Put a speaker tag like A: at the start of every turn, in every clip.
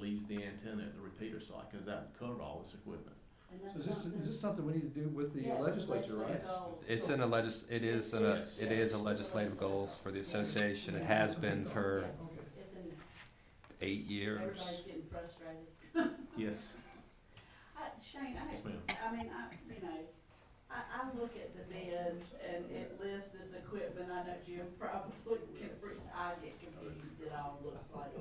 A: leaves the antenna at the repeater site, cause that would cover all this equipment.
B: And that's
C: Is this,
B: something-
C: is this something we need to do with the
B: Yeah,
C: legislature, right?
A: Yes.
B: goals.
D: It's in a legis, it is in a, it is a legislative goals for the association. It has been for
C: Okay.
B: It's in,
D: eight years.
B: everybody's getting frustrated.
A: Yes,
B: I, Shane, I,
A: yes ma'am.
B: I mean, I, you know, I, I look at the bids and it lists this equipment, I know Jim probably can, re- I get confused, it all looks like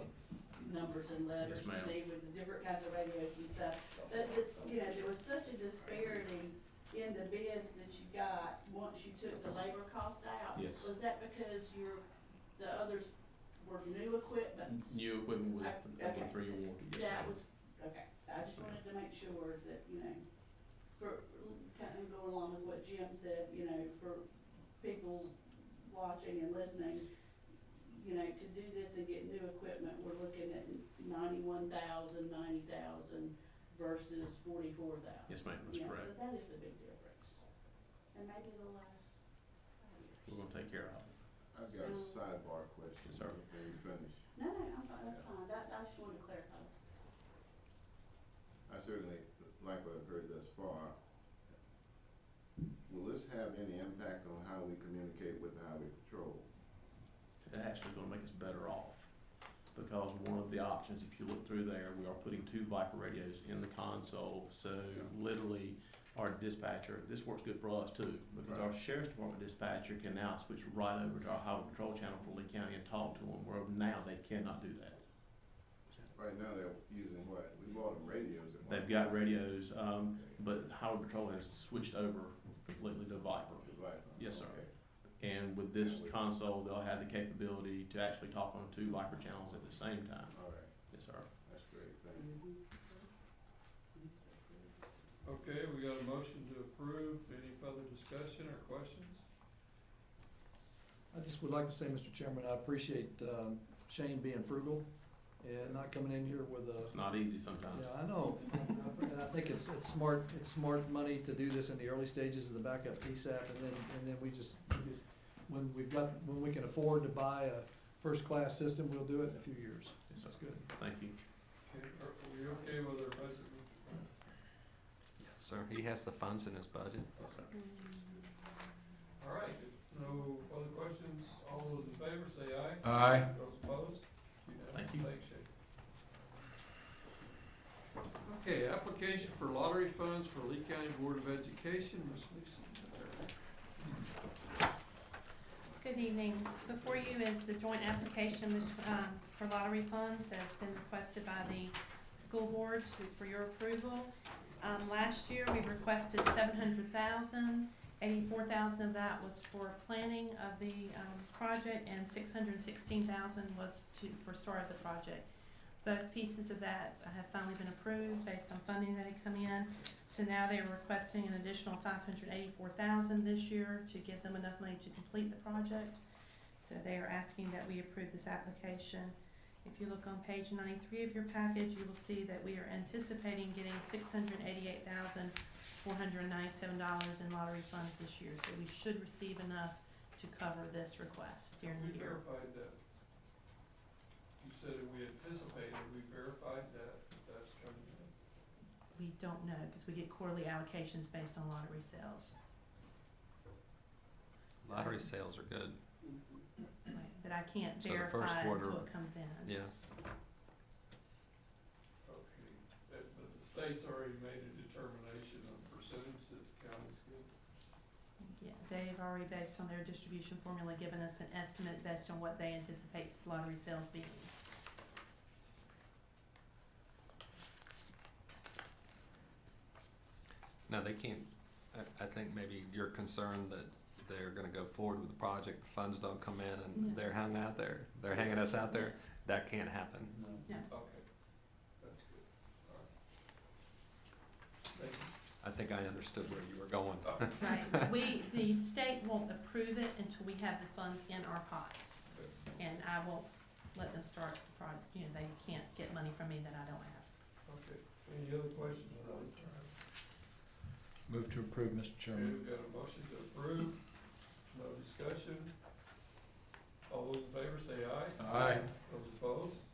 B: numbers and letters
A: Yes,
B: to
A: ma'am.
B: me with the different kinds of radios and stuff. But, the- you know, there was such a disparity in the bids that you got once you took the labor cost out.
A: Yes.
B: Was that because your, the others were new equipment?
A: New equipment with,
B: Okay.
A: with three award, yes
B: That
A: ma'am.
B: was, okay, I just wanted to make sure that, you know, for, kind of going along with what Jim said, you know, for people watching and listening, you know, to do this and get new equipment, we're looking at ninety-one thousand, ninety thousand versus forty-four thousand.
A: Yes ma'am, that's correct.
B: Yeah, so that is a big difference. And maybe the last five
A: We're
B: years.
A: gonna take care of it.
E: I've got a sidebar question.
A: Yes, sir.
E: Before you finish,
B: No, no, I'm fine, that's fine, that, I just wanted to clarify.
E: I certainly like what I've heard thus far. Will this have any impact on how we communicate with the highway patrol?
A: It's actually gonna make us better off. Because one of the options, if you look through there, we are putting two Viper radios in the console, so
E: Yeah.
A: literally our dispatcher, this works good for us too, because our sheriff's department dispatcher can now switch right over to our highway patrol channel for Lee County and talk to them, where now they cannot do that.
E: Right now, they're using what? We bought them radios at one.
A: They've got
E: radio.
A: radios, um, but highway patrol has switched over completely to Viper. Yes, sir. And with this console, they'll have the capability to actually talk on two Viper channels at the same time.
E: All right,
A: Yes, sir.
E: that's great, thank you.
B: Mhm.
F: Okay, we got a motion to approve. Any further discussion or questions?
C: I just would like to say, Mr. Chairman, I appreciate um, Shane being frugal and not coming in here with a,
A: It's not easy sometimes.
C: yeah, I know. And I think it's, it's smart, it's smart money to do this in the early stages of the backup PSAP, and then, and then we just, we just- when we've got, when we can afford to buy a first-class system, we'll do it in a few years.
A: Yes, sir.
C: That's good.
A: Thank you.
F: Okay, are are we okay with our president?
D: Sir, he has the funds in his budget.
A: Yes, sir.
F: All right, if no further questions. All those in favor, say aye.
C: Aye.
F: Those opposed? Unanimous.
A: Thank you.
F: Thanks, Shane. Okay, application for lottery funds for Lee County Board of Education, Ms. Lisa.
G: Good evening. Before you is the joint application bet- um, for lottery funds that's been requested by the school board to- for your approval. Um, Last year, we requested seven hundred thousand. Eighty-four thousand of that was for planning of the um, project and six hundred sixteen thousand was to, for start of the project. Both pieces of that have finally been approved based on funding that had come in. So now they're requesting an additional five hundred eighty-four thousand this year to give them enough money to complete the project. So they are asking that we approve this application. If you look on page ninety-three of your package, you will see that we are anticipating getting six hundred eighty-eight thousand four hundred ninety-seven dollars in lottery funds this year. So we should receive enough to cover this request during
F: We
G: the year.
F: verified that. You said we anticipated, we verified that, that's coming in.
G: We don't know, because we get quarterly allocations based on lottery sales.
D: Lottery sales are good,
G: But I can't
D: So the first
G: verify
D: quarter-
G: until it comes in.
D: yes.
F: Okay, but, but the state's already made a determination on percentage that the county's given.
G: Yeah, they've already, based on their distribution formula, given us an estimate based on what they anticipate lottery sales being.
D: No, they can't, I, I think maybe you're concerned that they're gonna go forward with the project, the funds don't come in
G: No.
D: and they're hung out there, they're hanging us out there. That can't happen.
F: Okay, that's good, all right. Thank you.
D: I think I understood where you were going.
G: Right, we, the state won't approve it until we have the funds in our pot. And I won't let them start the project, you know, they can't get money from me that I don't have.
F: Okay, any other questions on the term?
C: Move to approve, Mr.
F: Okay, we've got a motion to approve, no discussion. All those in favor say aye.
C: Aye.
F: Those opposed,